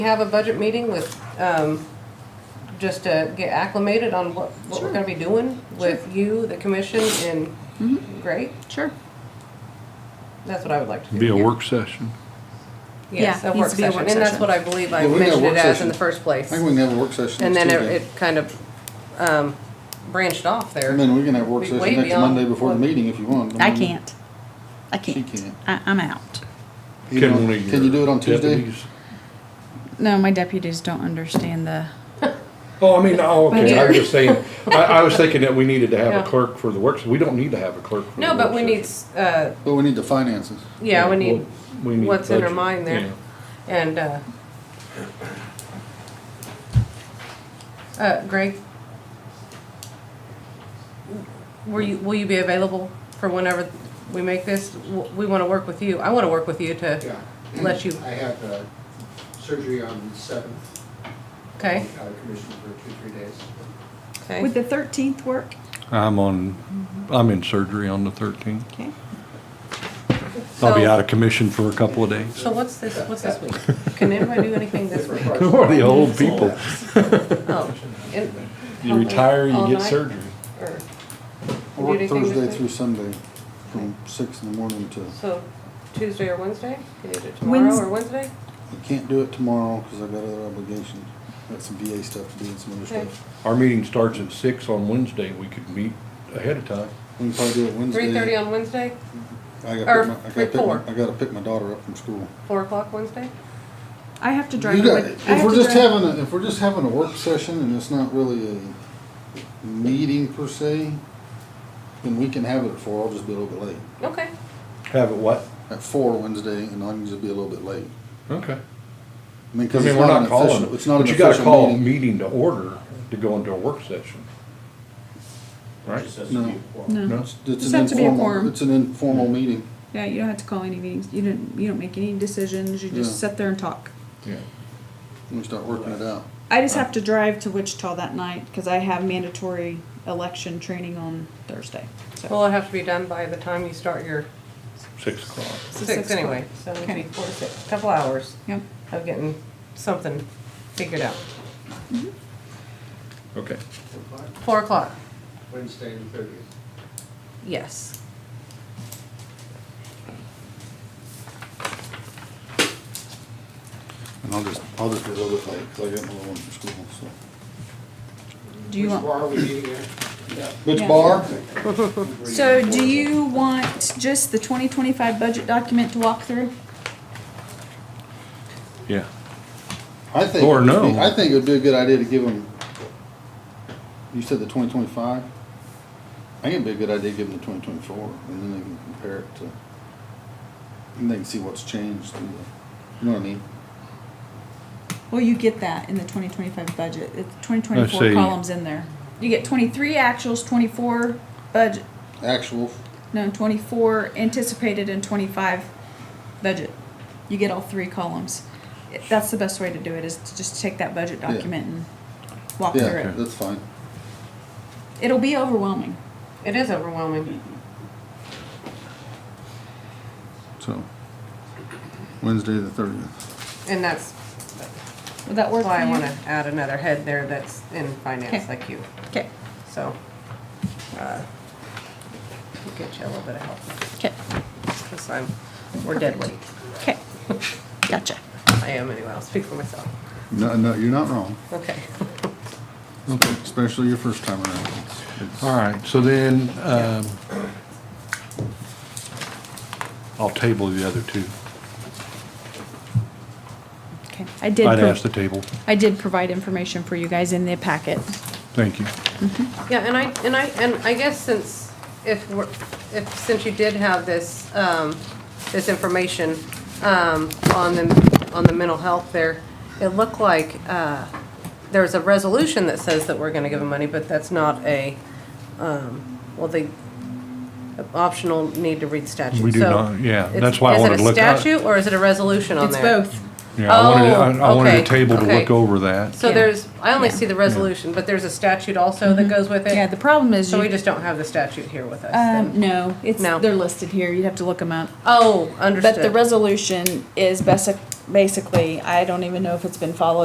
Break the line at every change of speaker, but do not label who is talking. We have a budget meeting with, um, just to get acclimated on what, what we're gonna be doing with you, the commission,
Mm-hmm.
and, great,
Sure.
that's what I would like to do.
Be a work session.
Yes,
Yeah,
a
needs
work
to be a
session,
work
and that's
session.
what I believe I
Yeah, we got
mentioned
work
it as in
session.
the first
I
place.
think we can have a work session
And
next
then it,
Tuesday.
it kind of, um, branched off there.
And then we can have a work
we-
session
way
next
beyond
Monday before the
what-
meeting if you want.
I
mean,
can't. I
She
can't.
can't.
I, I'm out.
you
Can
know,
one of
Can you
your
do it on Tuesday?
deputies-
No, my deputies don't understand the.
Oh, I mean, oh, okay, I was just saying, I, I was thinking that we needed to have
Yeah.
a clerk for the works, we don't need to have a clerk. for the
No, but
work
we need,
session.
uh,
But Oh, we need the finances.
yeah, we need,
Well, we need
what's in our
budget,
mind there. and, uh, uh, Greg? Were you, will you be available for whenever we make this? W- We wanna work with you, I wanna work with you to,
Yeah.
Let you-
I have uh, surgery on the seventh.
okay,
Commission for two, three days.
okay,
the thirteenth work?
I'm on, I'm in surgery on the thirteenth.
Okay.
I'll be
So-
out of commission for a couple of days.
so what's this, what's this week? Can anybody do anything this week?
Who are the old people?
Oh, and-
You retire,
All
you get
night?
surgery.
or-
I
Do
work
anything this
Thursday
week?
through Sunday from six in the morning to, you
So Tuesday or Wednesday? Can you do it tomorrow or Wednesday?
can't do it tomorrow because I've got other obligations. Got some VA stuff to do and some other
Okay.
stuff.
Our meeting starts at six on Wednesday, we could meet ahead of time.
We can probably do it Wednesday.
Three thirty on Wednesday,
I gotta
or
pick my- I gotta pick my-
four.
I gotta pick my daughter up from school.
four o'clock Wednesday?
I have to drive.
You
to
got,
Lake- I
if
have
we're
to
just
drive-
having, a if we're just having a work session and it's not really a meeting per se, then we can have it at four, I'll just be a little bit late.
Okay,
Have it what?
At four Wednesday, and I can just be a little bit late.
Okay.
I mean,
I
cause
mean,
it's
we're
not
not
an
calling,
official, it's not
but
an
you gotta call
official
a
meeting.
meeting to order to go into a work session. Right?
No,
No?
No.
it's
Just
an
have to be a
informal,
quorum.
it's an informal meeting.
Yeah, you don't have to call any meetings. You don't. You don't make any decisions. You just
Yeah.
sit there and talk.
Yeah.
when We start working it out.
I just have to drive to Wichita that night because I have mandatory election training on Thursday. So
well, it'll have to be done by the time you start your
Six o'clock.
it's a
six
o'clock.
anyway. So it'll be
Okay.
four, to six, couple hours
Yep.
of getting something figured out.
Okay.
Four o'clock,
Wednesday the thirtieth.
yes.
And I'll just, I'll just be a little bit late, cause I get my little one from school, so.
Do you
Which
want?
bar are we meeting at?
Which
Yeah.
bar?
So do you want just the 2025 budget document to walk through?
Yeah.
I think.
Or
it would
no.
be- I think it would be a good idea to give them, you said the twenty twenty-five? I think it'd be a good idea to give them the twenty twenty-four, and then they can compare it to, and they can see what's changed, and, you know what I mean?
Well, you get that in the twenty twenty-five budget, it's twenty
I
twenty-four
see.
columns in there. You get twenty-three actuals, twenty-four budget,
Actual,
no, twenty-four anticipated and twenty-five budget. You get all three columns. It- That's the best way to do it, is to just take that budget
Yeah.
document and walk through
yeah,
it.
that's fine.
It'll be overwhelming.
It is overwhelming.
So, Wednesday the thirtieth.
And that's
Would that work for
why I
you?
wanna add another head there that's in finance
Okay.
like you,
Okay,
so. uh, we'll Get you a little bit of help,
okay,
because I'm, we're dead weight.
okay. Gotcha.
I am anyway, I'll speak for myself.
No, no, you're not wrong,
Okay.
especially your first time around. It's- it's-
All right, so then, um, I'll table the other two.
Okay, I did,
I'd
pro-
ask the table.
I did provide information for you guys in the packet.
Thank you.
Yeah, and I, and I, and I guess since, if we're, if, since you did have this, um, this information, um, on the, on the mental health there, it looked like, uh, there's a resolution that says that we're gonna give them money, but that's not a, um, well, they, optional need to read statute,
We do
so
not- yeah,
it's-
that's why I wanted to look up.
Is it a statute or is it a resolution on
It's
there?
both.
Yeah, I wanted, I- I
Oh,
wanted
okay,
a table to
okay.
look over that.
So
Yeah.
there's, I only
Yeah. Mm-hmm.
see the resolution, but there's a statute also that goes with it?
Yeah, the problem is
So we
you,
just don't have the statute here with us? then?
um, no, it's,
No.
they're listed here, you'd have to look them up.
Oh,
But the
understood.
resolution is basic, basically, I don't even know if it's been followed